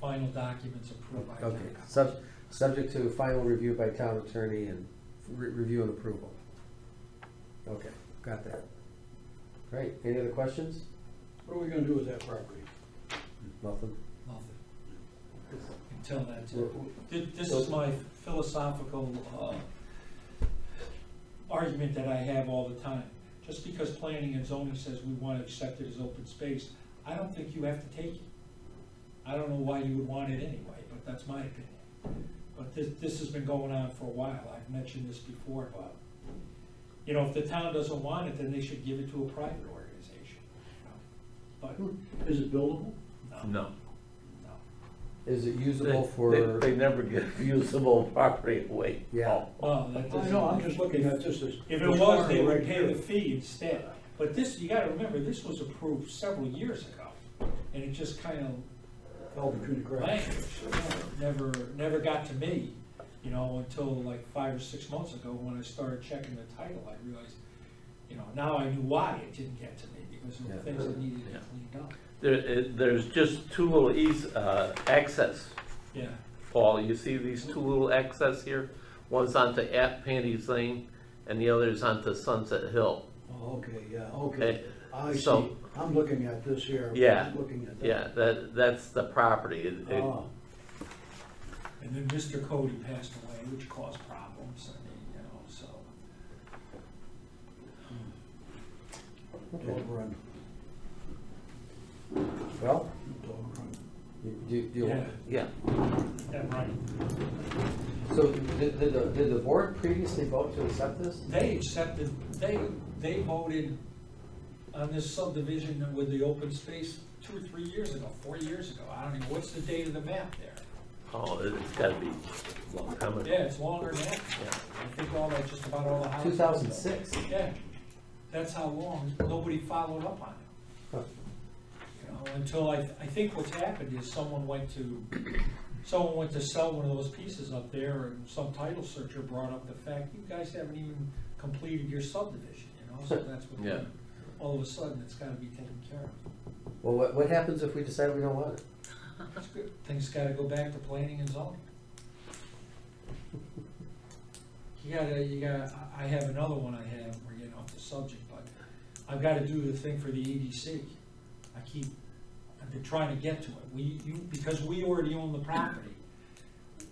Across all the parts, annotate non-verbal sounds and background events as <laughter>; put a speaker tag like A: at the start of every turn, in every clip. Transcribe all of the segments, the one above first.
A: final documents approved by town
B: Okay,
A: council.
B: sub, subject to final review by town attorney and re- review and approval. Okay, got that. Great, any other questions?
C: What are we gonna do with that property?
B: Nothing?
A: Nothing. Until that's
B: We're-
A: it. Thi- This is my philosophical uh, argument that I have all the time. Just because planning and zoning says we want to accept it as open space, I don't think you have to take it. I don't know why you would want it anyway, but that's my opinion. But this, this has been going on for a while. I've mentioned this before about, you know, if the town doesn't want it, then they should give it to a private organization. But, no,
C: Is it buildable?
A: no.
D: No.
B: Is it usable
D: They-
B: for,
D: They they never
B: <laughs>
D: give usable property away.
B: Yeah.
A: Oh, that
C: I
A: doesn't.
C: know, I'm just looking at this as.
A: If it was, they would
C: Right
A: pay the
C: here.
A: fee instead. But this, you gotta remember, this was approved several years ago, and it just kind of
C: Fell between the cracks.
A: languished. you know, it Never, never got to me, you know, until like five or six months ago, when I started checking the title, I realized, you know, now I knew why it didn't get to me, because there were
B: Yeah.
A: things that needed to
D: Yeah.
A: be cleaned up.
D: There, it- there's just two little eas, uh, access,
A: Yeah,
D: Paul, you see these two little access here? One's onto App Panties Lane, and the other's onto Sunset Hill.
C: Oh, okay, yeah, okay. I see.
D: so-
C: I'm looking at this here.
D: Yeah,
C: I'm Looking at that.
D: Yeah, that, that's the property. It- it-
B: Oh.
C: Ah,
A: and then Mr. Cody passed away, which caused problems, I mean, you know, so.
C: dog run,
B: well,
C: dog run.
B: you- do, do you,
D: Yeah,
A: Yeah, right.
B: so did, did the, did the board previously vote to accept this?
A: They accepted, they, they voted on this subdivision with the open space two or three years ago, four years ago. I don't even, what's the date of the map there?
D: oh, it- it's gotta be a long time ago.
A: Yeah, it's longer than that.
D: Yeah.
A: I think all that, just about all the houses.
B: Two thousand six?
A: Yeah, that's how long, nobody followed up on it. You know, until I, I think what's happened is someone went to, someone went to sell one of those pieces up there and some title searcher brought up the fact, you guys haven't even completed your subdivision, you know, so that's what.
D: Yeah.
A: All of a sudden, it's gotta be taken care of.
B: Well, what, what happens if we decide we don't want it?
A: It's good. Things gotta go back to planning and zoning. You gotta, you gotta, I I have another one I have, we're getting off the subject, but I've gotta do the thing for the EDC. I keep, I've been trying to get to it. We, you, because we already own the property,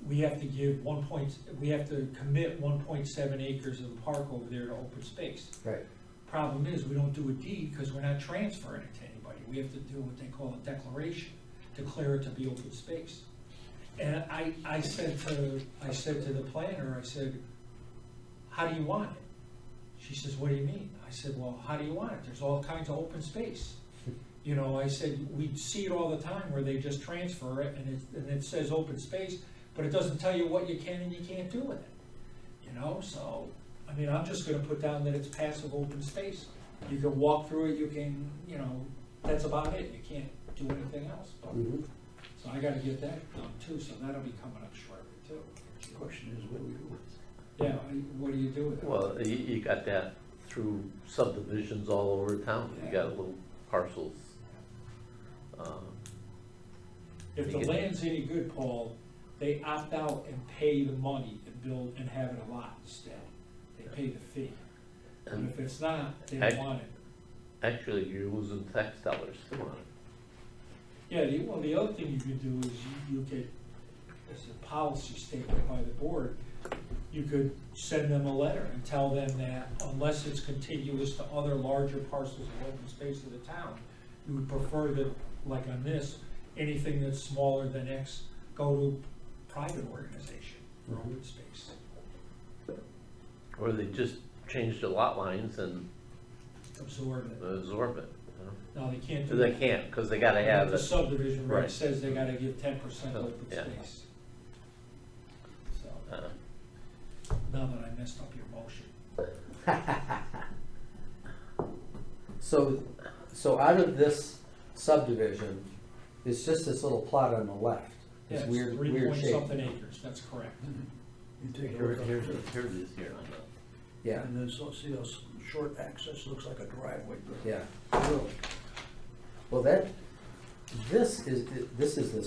A: we have to give one point, we have to commit one point seven acres of the park over there to open space.
B: Right,
A: Problem is, we don't do a deed because we're not transferring it to anybody. We have to do what they call a declaration, declare it to be open space. And I, I said to, I said to the planner, I said, how do you want it? She says, what do you mean? I said, well, how do you want it? There's all kinds of open space. You know, I said, we see it all the time where they just transfer it and it, and it says open space, but it doesn't tell you what you can and you can't do with it. You know, so, I mean, I'm just gonna put down that it's passive open space. You can walk through it, you can, you know, that's about it, you can't do anything else. But-
D: Mm-hmm.
B: Mhm.
A: So I gotta get that done too, so that'll be coming up shortly too.
C: The Question is, what do we do with it?
A: Yeah, I- what do you do with it?
D: Well, you, you got that through subdivisions all over town. You got little parcels. Um,
A: If the land's any good, Paul, they opt out and pay the money and build and have it a lot instead. They pay the fee. And
D: And
A: if it's not, they don't
D: I-
A: want it.
D: actually, you're losing tax dollars too on it.
A: Yeah, the, well, the other thing you could do is you, you could, as a policy statement by the board, you could send them a letter and tell them that unless it's contiguous to other larger parcels of open space of the town, you would prefer that, like on this, anything that's smaller than X go to private organization for open space.
D: Or they just change the lot lines and
A: Absorb it.
D: absorb it. you know?
A: No, they can't do
D: They
A: that.
D: can't, because they gotta have
A: The
D: it.
A: subdivision reg
D: Right.
A: says they gotta give ten percent
D: So,
A: open
D: yeah.
A: space. So.
D: Uh,
A: Now that I messed up your motion.
B: So, so out of this subdivision, it's just this little plot on the left,
A: Yeah,
B: this
A: it's
B: weird,
A: three
B: weird
A: point
B: shape.
A: something acres, that's correct.
C: You take a
D: Here,
C: look up
D: here,
C: there.
D: here it is here.
B: Yeah,
C: And then, so, see, those short access looks like a driveway.
B: yeah.
C: Really.
B: Well, that, this is, this is this